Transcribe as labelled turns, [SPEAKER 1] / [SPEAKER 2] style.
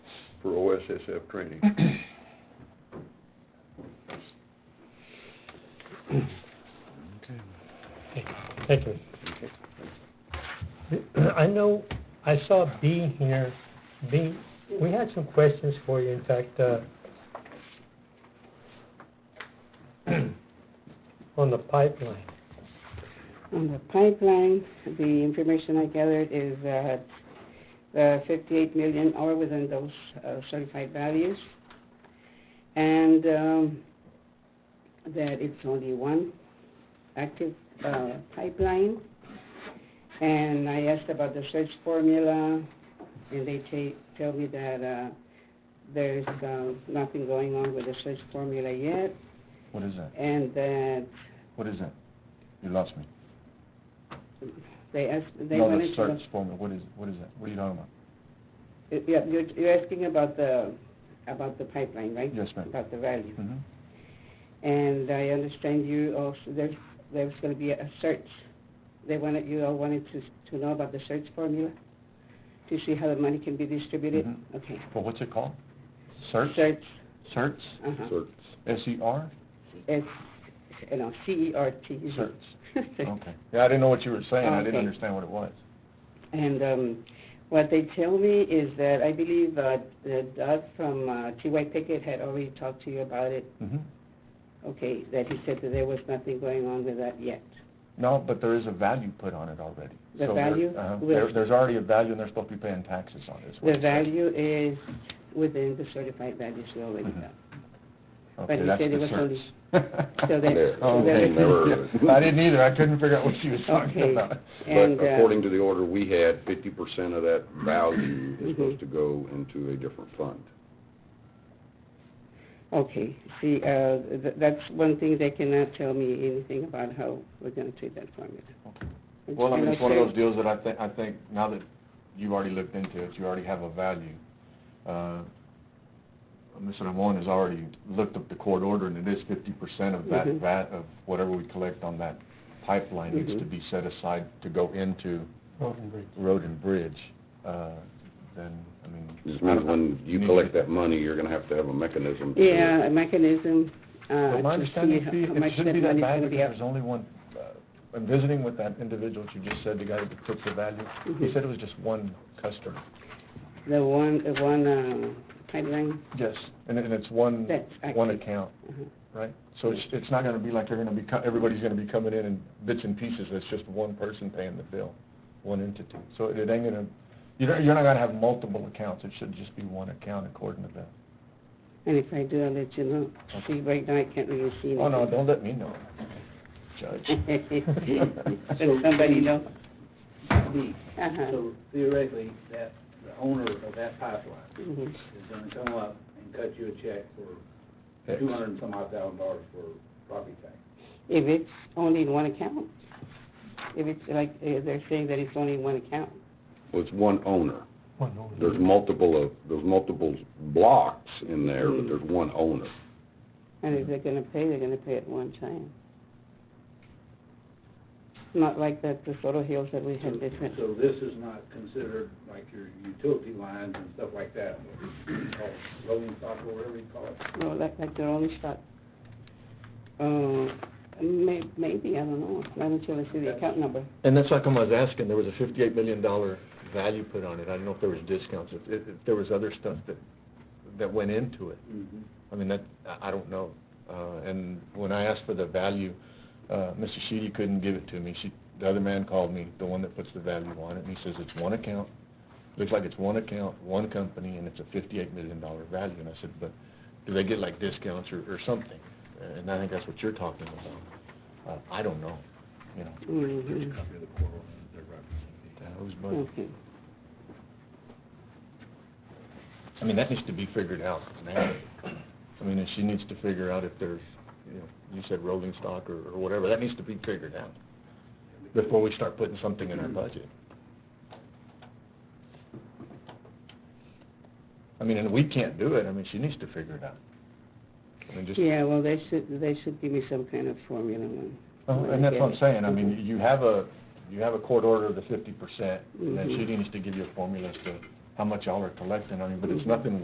[SPEAKER 1] for OSSF training.
[SPEAKER 2] Mm-hmm.
[SPEAKER 3] Thank you. I know, I saw B here, B, we had some questions for you, in fact, uh, on the pipeline.
[SPEAKER 2] On the pipeline, the information I gathered is that the 58 uh, million are within those uh, certified values, and um, that it's only one active uh, pipeline. And I asked about the search formula, and they ta- tell me that uh, there's uh, nothing going on with the search formula yet,
[SPEAKER 4] What is that?
[SPEAKER 2] and that
[SPEAKER 4] What is that? You lost me.
[SPEAKER 2] they asked, they
[SPEAKER 4] no,
[SPEAKER 2] wanted
[SPEAKER 4] the
[SPEAKER 2] to...
[SPEAKER 4] search formula. What is what is that? What are you talking about?
[SPEAKER 2] Yeah, you're, you're asking about the, about the pipeline, right?
[SPEAKER 4] Yes, ma'am.
[SPEAKER 2] About the value.
[SPEAKER 4] Mm-hmm.
[SPEAKER 2] And I understand you also, there's, there's gonna be a search. They wanted, you all wanted to, to know about the search formula, to see how the money can be distributed?
[SPEAKER 4] Mhm.
[SPEAKER 2] Okay.
[SPEAKER 4] Well, what's it called? Search.
[SPEAKER 2] Search,
[SPEAKER 4] Search.
[SPEAKER 2] uh-huh.
[SPEAKER 1] So,
[SPEAKER 4] S E R.
[SPEAKER 2] It's, you know, E C-E-R-T.
[SPEAKER 4] Search.
[SPEAKER 2] Search.
[SPEAKER 4] Okay. Yeah, I didn't know what you were saying. I
[SPEAKER 2] Okay.
[SPEAKER 4] didn't understand what it was.
[SPEAKER 2] And um, what they tell me is that, I believe, uh, that Doug from uh, T.Y. Pickett had already talked to you about it
[SPEAKER 4] Mm-hmm.
[SPEAKER 2] Okay, that he said that there was nothing going on with that yet.
[SPEAKER 4] No, but there is a value put on it already.
[SPEAKER 2] The
[SPEAKER 4] So there-
[SPEAKER 2] value
[SPEAKER 4] uh-huh.
[SPEAKER 2] will-
[SPEAKER 4] There, there's already a value, and they're supposed to be paying taxes on this.
[SPEAKER 2] The value is within the certified values we already
[SPEAKER 4] Mhm.
[SPEAKER 2] got.
[SPEAKER 4] Okay,
[SPEAKER 2] he
[SPEAKER 4] that's
[SPEAKER 2] said
[SPEAKER 4] the
[SPEAKER 2] it was
[SPEAKER 4] search.
[SPEAKER 2] only- So that-
[SPEAKER 1] Yeah,
[SPEAKER 2] so
[SPEAKER 1] okay,
[SPEAKER 2] that-
[SPEAKER 1] never-
[SPEAKER 4] I didn't either. I couldn't figure out what she was
[SPEAKER 2] Okay.
[SPEAKER 4] talking about.
[SPEAKER 1] But
[SPEAKER 2] And, uh,
[SPEAKER 1] according to the order we had, fifty percent of that value is
[SPEAKER 2] Mhm.
[SPEAKER 1] supposed to go into a different fund.
[SPEAKER 2] Okay, see, uh, th- that's one thing they cannot tell me anything about how we're gonna treat that formula.
[SPEAKER 4] Okay. Well, I mean,
[SPEAKER 2] And
[SPEAKER 4] it's one of
[SPEAKER 2] said-
[SPEAKER 4] those deals that I think, I think now that you've already looked into it, you already have a value. Uh, Mr. Ramon has already looked up the court order, and it is fifty percent of that,
[SPEAKER 2] Mhm.
[SPEAKER 4] that, of whatever we collect on that pipeline needs to
[SPEAKER 2] Mhm.
[SPEAKER 4] be set aside to go into
[SPEAKER 3] Road and bridge.
[SPEAKER 4] road and bridge. Uh, Then, I mean.
[SPEAKER 1] This
[SPEAKER 4] I
[SPEAKER 2] Uh-huh.
[SPEAKER 1] means
[SPEAKER 4] don't-
[SPEAKER 1] when
[SPEAKER 4] you
[SPEAKER 1] you
[SPEAKER 4] need
[SPEAKER 1] collect
[SPEAKER 4] to-
[SPEAKER 1] that money, you're gonna have to have a mechanism to do it.
[SPEAKER 2] Yeah, a mechanism, uh,
[SPEAKER 4] Well, my
[SPEAKER 2] to
[SPEAKER 4] understanding is
[SPEAKER 2] see how
[SPEAKER 4] be-
[SPEAKER 2] how much
[SPEAKER 4] it
[SPEAKER 2] that
[SPEAKER 4] should be
[SPEAKER 2] money's
[SPEAKER 4] that value,
[SPEAKER 2] gonna be
[SPEAKER 4] because
[SPEAKER 2] out.
[SPEAKER 4] there's only one, uh, I'm visiting with that individual that you just said, the guy that puts the value. He
[SPEAKER 2] Mhm.
[SPEAKER 4] said it was just one customer.
[SPEAKER 2] Mm-hmm. The one, the one, um, pipeline,
[SPEAKER 4] Yes, and, and it's one,
[SPEAKER 2] That's
[SPEAKER 4] Mm-hmm. one
[SPEAKER 2] active.
[SPEAKER 4] account,
[SPEAKER 2] uh-huh.
[SPEAKER 4] right? So it's, it's not gonna be like they're gonna be, co- everybody's gonna be coming in in bits and pieces, it's just one person paying the bill, one entity. So it ain't gonna, you're, not- you're not gonna have multiple accounts, it should just be one account according to that.
[SPEAKER 2] and if I do, I'll let you know. See, right now, I can't really see anything.
[SPEAKER 4] Oh, no, don't let me know, Judge.
[SPEAKER 2] Let somebody know.
[SPEAKER 5] B.
[SPEAKER 2] Uh-huh.
[SPEAKER 5] So theoretically, that, the owner of that pipeline
[SPEAKER 2] Mhm.
[SPEAKER 5] is gonna come up and cut you a check for
[SPEAKER 4] X.
[SPEAKER 5] two hundred and some odd thousand dollars for property tax.
[SPEAKER 2] If it's only in one account, if it's like, uh, they're saying that it's only in one account.
[SPEAKER 1] Well, it's one owner.
[SPEAKER 3] One over.
[SPEAKER 1] There's multiple of, there's multiple blocks in there,
[SPEAKER 2] Mm-hmm.
[SPEAKER 1] but there's one owner.
[SPEAKER 2] And if they're gonna pay, they're gonna pay at one time. Not like that, the Soto Hills that we had different.
[SPEAKER 5] So this is not considered like your utility lines and stuff like that, what you call it, rolling stock or whatever you call it.
[SPEAKER 2] No, like, like their own stock. Uh, may, maybe, I don't know, not until I see the account number.
[SPEAKER 4] And that's how come I was asking, there was a fifty-eight million dollar value put on it, I don't know if there was discounts, if, if, if there was other stuff that, that went into it.
[SPEAKER 5] Mhm.
[SPEAKER 4] I mean, that, I, I don't know. Uh, and when I asked for the value, uh, Mrs. Sheedy couldn't give it to me. She, the other man called me, the one that puts the value on it, and he says it's one account. Looks like it's one account, one company, and it's a fifty-eight million dollar value. And I said, but do they get like discounts or, or something? And I think that's what you're talking about. Uh, I don't know, you know.
[SPEAKER 2] Mhm.
[SPEAKER 4] Uh, who's money?
[SPEAKER 2] Okay,
[SPEAKER 4] I mean, that needs to be figured out now. I mean, and she needs to figure out if there's, you know, you said rolling stock or, or whatever, that needs to be figured out before we start putting something in our budget. I mean, and we can't do it, I mean, she needs to figure it out. I mean, just,
[SPEAKER 2] yeah, well, they should, they should give me some kind of formula on.
[SPEAKER 4] Oh, and that's what I'm saying, I mean, you have a, you have a court order of the fifty percent, and then she
[SPEAKER 2] Mhm.
[SPEAKER 4] needs to give you a formula as to how much y'all are collecting, I mean, but it's
[SPEAKER 2] Mhm.
[SPEAKER 4] nothing